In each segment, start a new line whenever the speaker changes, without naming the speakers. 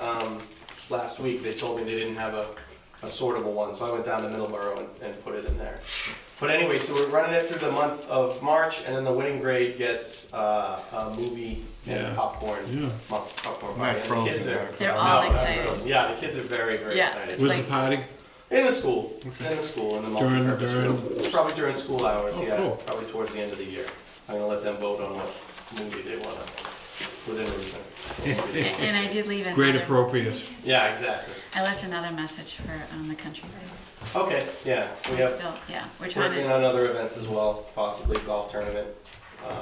um, last week, they told me they didn't have a, a sortable one, so I went down to Middleborough and, and put it in there. But anyway, so we're running it through the month of March, and then the winning grade gets, uh, a movie and
Yeah.
popcorn,
Yeah.
pop- popcorn
Not
party. And the kids
frozen,
are-
right?
They're
No,
all
not
excited.
frozen. Yeah, the kids are very, very
Yeah.
excited.
Where's the party?
In the school, in the school, in the
During-
multi-purpose room. Probably during school hours,
Oh,
yeah,
cool.
probably towards the end of the year. I'm gonna let them vote on what movie they wanna, within reason.
And and I did leave another.
Great appropriate.
Yeah, exactly.
I left another message for um, the country. club.
Okay, yeah, we
We're
have,
still, yeah, we're trying
working
to,
on other events as well, possibly golf tournament, um,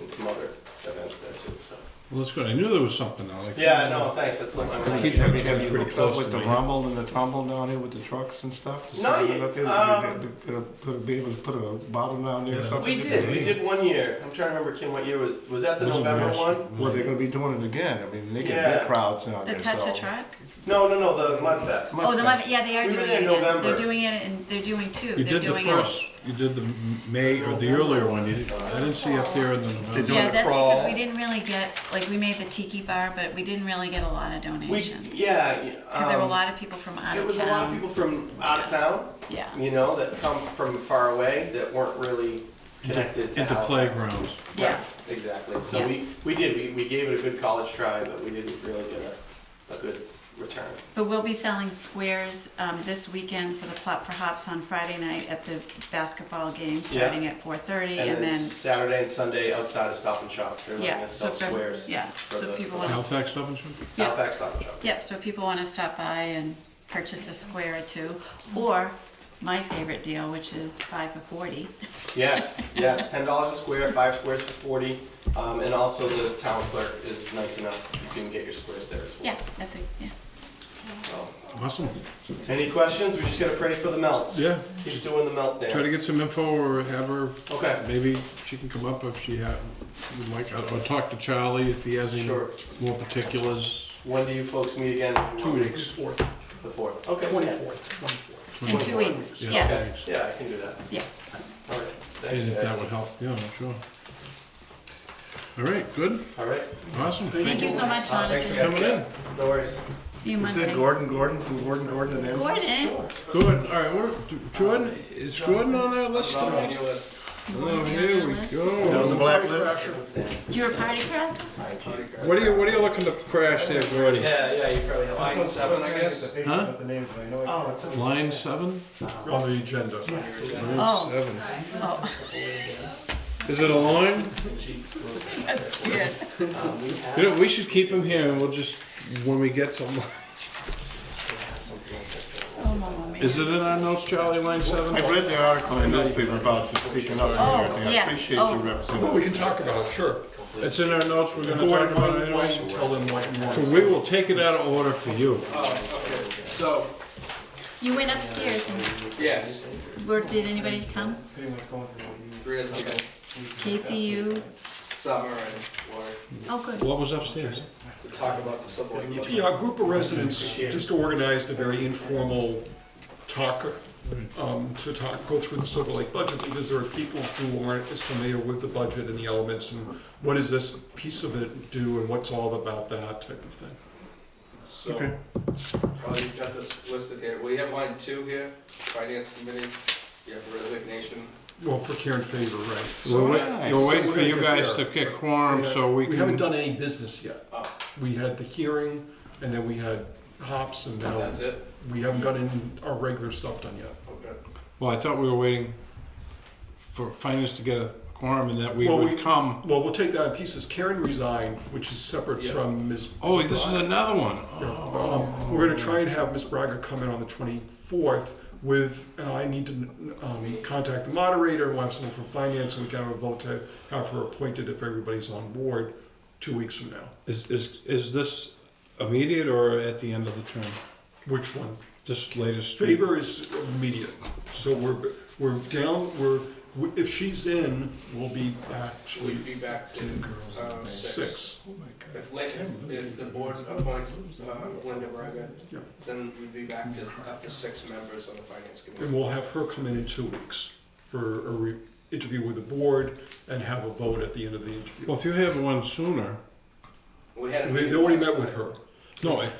and some other events there too, so.
Well, that's good. I knew there was something. I like.
Yeah, no, thanks, that's like my
Have
mind.
you, have you- have you
Pretty
hooked
close
up with
to
the
me.
rumble and the tumble down here with the trucks and stuff?
No,
Something
you-
like that?
um,
Did you- did- did- Put a, be able to put a bottle down there or something?
We did, we did one year. I'm trying to remember, Kim, what year was, was that the
Wasn't
November
last-
one?
Well, they're gonna be doing it again, I mean, they get
Yeah.
big crowds now.
the touch a truck?
No, no, no, the Mudfest.
Oh, the
Mudfest.
Mud, yeah, they are
We
doing
were there
it
in
again. They're
November.
doing it and they're doing two.
You
They're
did the
doing it.
first. You did the m- May or the earlier one. You did, I didn't see up there in the
They
November.
doing
Yeah,
the
that's because we
crawl.
didn't really get, like, we made the tiki bar, but we didn't really get a lot of
We,
donations.
yeah.
Because there were a
um,
lot of people from out
There
of
was a lot of
town.
people from out of town,
Yeah,
you know, that come from far away that weren't really connected to
Into
Halifax.
playgrounds.
yeah.
Exactly. So
Yeah.
we, we did, we, we gave it a good college try, but we didn't really get a, a good return.
But we'll be selling squares um, this weekend for the Plot for Hops on Friday night at the basketball game, starting at 4:30,
And
and
then
then,
Saturday and Sunday outside of Stop and Shop, they're letting
yeah,
us
so
sell
for,
squares.
yeah,
for
so
the-
people want to,
Halifax Stop and Shop.
yeah.
Halifax Stop and Shop.
yep, so people want to stop by and purchase a square or two, or my favorite deal, which is five for 40.
Yes, yeah, it's ten dollars a square, five squares for forty. Um, and also the town clerk is nice enough, you can get your squares there as
Yeah,
well.
I think, yeah.
So,
Awesome.
Any questions? We just gotta pray for the melts.
Yeah.
He's doing the melt dance.
Try to get some info or have her.
Okay.
Maybe she can come up if she ha would like, or talk to Charlie if he has any
Sure.
more particulars.
When do you folks meet again?
Two weeks.
Fourth,
The fourth. Okay.
twenty-fourth, twenty-fourth.
In two weeks,
Yeah.
yeah,
Okay. Yeah, I can do that.
yeah.
All right. Thanks,
And if that
guys.
would help, yeah, sure. All right, good,
All right.
awesome.
Thank you so much,
Uh, thanks again.
Jonathan.
Coming in.
No worries.
See you
Is that
Monday.
Gordon, Gordon, from Gordon, Gordon and Andy?
Gordon?
Gordon, all right, what, do- Jordan, is Jordan on that list
Not on
tonight?
your list.
Oh, here we
That
go.
was a blacklist?
You were party crasher?
What are you, what are you looking to crash there, Gordy?
Yeah, yeah, you probably have. Line seven, I guess.
Huh?
Oh, it's a-
Line seven? On the agenda.
Oh.
Line seven.
Oh,
Is it a line?
that's good.
You know, we should keep him here and we'll just, when we get to, li-
Oh, mamma mia.
is it in our notes, Charlie, line seven?
I read the article in the newspaper about you speaking up
Oh,
and everything, I
yes.
appreciate
Oh.
you representing.
We can talk about it, sure.
It's in our notes, we're gonna
Go
talk
on,
about it
why- why
anyway.
you tell them what you want.
So we will take it out of order for you.
So,
You went upstairs and
yes,
where, did anybody come?
three of them,
Casey, you?
summer and Lori,
Oh, good.
What was upstairs?
to talk about the subway.
Yeah, a group of residents just organized a very informal talk, um, to talk, go through the Silver Lake budget, because there are people who aren't as familiar with the budget and the elements, and what does this piece of it do, and what's all about that type of thing.
So, well, you've got this listed here, we have line two here, finance committee, you have resignation.
Well, for Karen Favor, right.
We're
So
wait- You're waiting for you guys to get quorum so we
We haven't
can,
done any business yet.
Oh.
We had the hearing, and then we had hops, and now
That's it?
we haven't gotten our regular stuff done yet.
Okay.
well, I thought we were waiting for finance to get a quorum and that we
Well,
would
we-
come.
Well, we'll take that in pieces. Karen resigned, which is separate
Yeah.
from Ms.
Oh, this is another one.
Um, We're gonna try and have Ms. Braga come in on the twenty-fourth with, and I need to, um, contact the moderator, and we'll have someone from finance, and we can have a vote to have her appointed if everybody's on board two weeks from now.
Is, is, is this immediate or at the end of the term?
Which one?
This latest?
Favor is immediate, so we're, we're down, we're, if she's in, we'll be actually
We'd be back to, um, six.
six.
If Lincoln, if the board appoints, uh, Linda Braga,
Yeah.
then we'd be back to up to six members on the finance
And
committee.
we'll have her come in in two weeks for a re- interview with the board and have a vote at the end of the interview.
Well, if you have one sooner,
We had a
They, they
meeting
already
last
met with
night.
her.
no, if,